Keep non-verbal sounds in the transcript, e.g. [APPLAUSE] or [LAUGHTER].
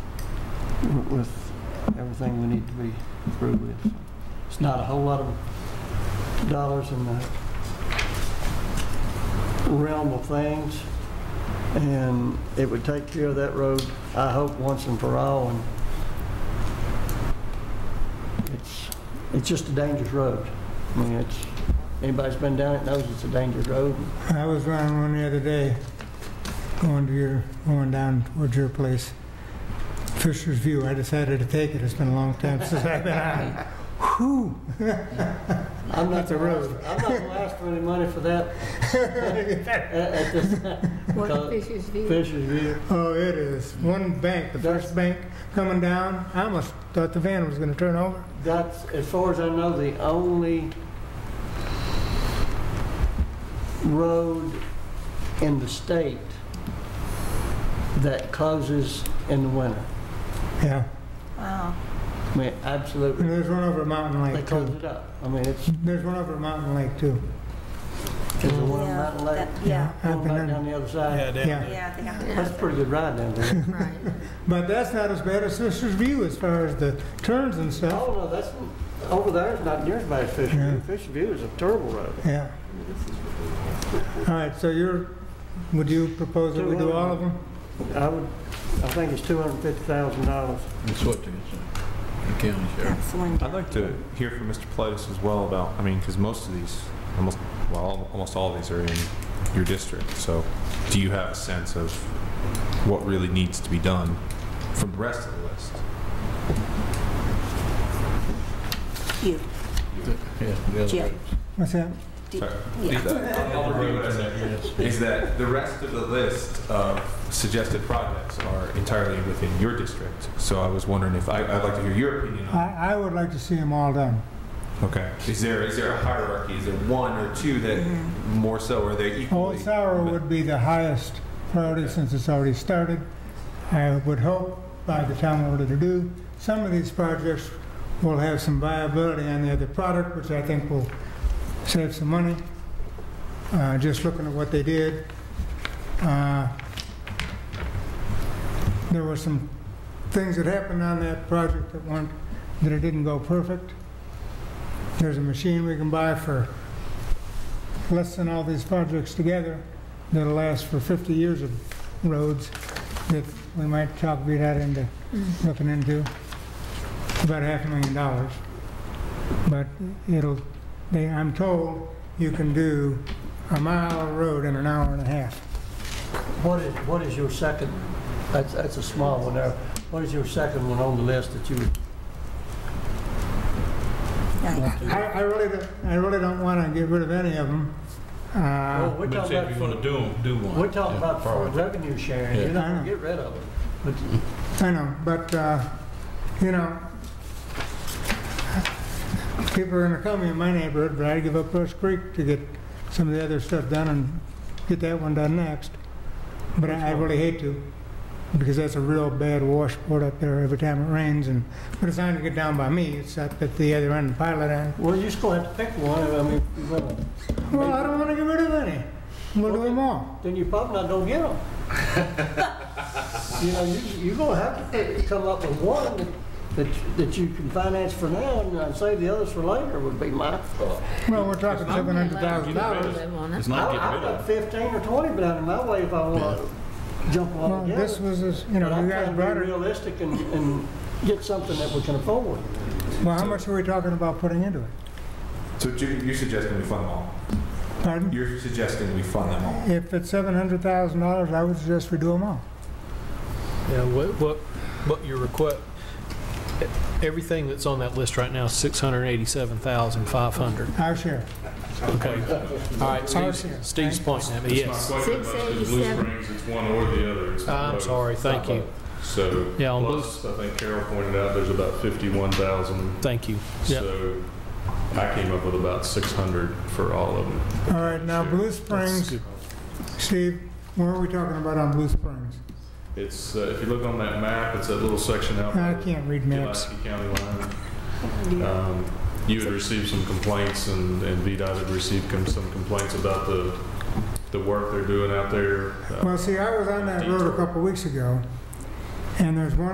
with everything we need to be through with. It's not a whole lot of dollars in the realm of things, and it would take care of that road, I hope, once and for all, and it's, it's just a dangerous road. I mean, it's, anybody's been down it knows it's a dangerous road. I was running one the other day, going to your, going down towards your place, Fisher's View. I decided to take it. It's been a long time [LAUGHS] since I've been on it. Whew! I'm not That's a the road. I'm not gonna ask for any money for that [LAUGHS] at, at this time. What Because fish is view? Fisher's View, Oh, it is. One bank, the That's- first bank coming down, I almost thought the van was gonna turn over. that's, as far as I know, the only road in the state that closes in the winter. Yeah, Wow. I mean, and absolutely, there's one over at Mountain they Lake close too. it up. I mean, it's, The's one over at Mountain Lake too. it's a one Yeah, mountain lake, that- Yeah, I've going been back down on- the other side. Yeah, yeah, they are. That's a pretty good ride down [LAUGHS] there. Right. but that's not as bad as Fisher's View as far as the turns and stuff. Oh, no, that's, over there is not near as bad as Fisher Yeah. View. Fisher View is a terrible road. Yeah. All right, so you're, would you propose that we do all of them? I would, I think it's two hundred and fifty thousand dollars. That's what it is. The county sheriff. That's the one. I'd like to hear from Mr. Politis as well about, I mean, because most of these, almost, well, al- almost all of these are in your district. So do you have a sense of what really needs to be done from the rest of the list? You, Yeah, the other Yeah. roads. What's that? Sorry. yeah. Is that the rest of the list of suggested projects are entirely within your district? So I was wondering if, I- I'd like to hear your opinion on I, I would like to see them all done. Okay. Is there, is there a hierarchy? Is there one or two that more so, or are they equally? Old Sour would be the highest priority since it's already started. I would hope by the time we're ready to do, some of these projects will have some viability on the other product, which I think will save some money. Uh, just looking at what they did, uh, there were some things that happened on that project that weren't, that it didn't go perfect. There's a machine we can buy for less than all these projects together that'll last for 50 years of roads that we might talk beat out into, looking into, about half a million dollars. But it'll, they, I'm told you can do a mile of road in an hour and a half. What is, what is your second, that's, that's a small one there. What is your second one on the list that you, Uh, Nice. I, I really don't, I really don't want to get rid of any of them. well, Uh, we're But talking say if you're about, gonna do 'em, do one. we're talking Yeah, about far for away. revenue sharing. You're Yeah. not I gonna know. get rid of them. But I know, but, uh, you know, people are gonna call me in my neighborhood, but I give up Rush Creek to get some of the other stuff done and get that one done next. But I I really hate to, because that's a real bad washboard up there every time it rains, and, but it's not gonna get down by me, it's up at the other end of Pilot End. Well, you're just gonna have to pick one, I mean, if you're gonna- Well, I don't wanna get rid of any, we'll do them all. then you probably not [LAUGHS] gonna get them. You know, you, you're gonna have to pick- come up with one that- that, that you can finance for now and uh, save the others for later would be my thought. Well, we're talking seven hundred thousand dollars. It's I- not getting I've rid got of. fifteen or twenty down in my way if I want to jump Well, on it. this was, this- you But know, I'm you guys trying to brought be it, realistic and, and get something that we can afford. well, how much are we talking about putting into it? So you- you're suggesting we fund them all? Pardon? You're suggesting we fund them all? If it's seven hundred thousand dollars, I would suggest we do them all. Yeah, what, what, what your request, everything that's on that list right now is 687,500. Our share. Okay. All right, Our Steve's, share. Steve's pointing at me, yes. My question about the Blue 687. Springs, it's one or the other. It's not I'm both. sorry, thank you, So, Yeah, on plus, I think Carol pointed out, there's about 51,000. thank you. Yeah, So I came up with about 600 for all of them. All right, now Blue that's Springs, good. Steve, what are we talking about on Blue Springs? It's, uh, if you look on that map, it's that little section out. I by can't read the maps. Pulaski County line. Um, You had received some complaints and and VDOT had received com- some complaints about the, the work they're doing out there. uh, Well, see, I was on that road a couple weeks ago, and there's one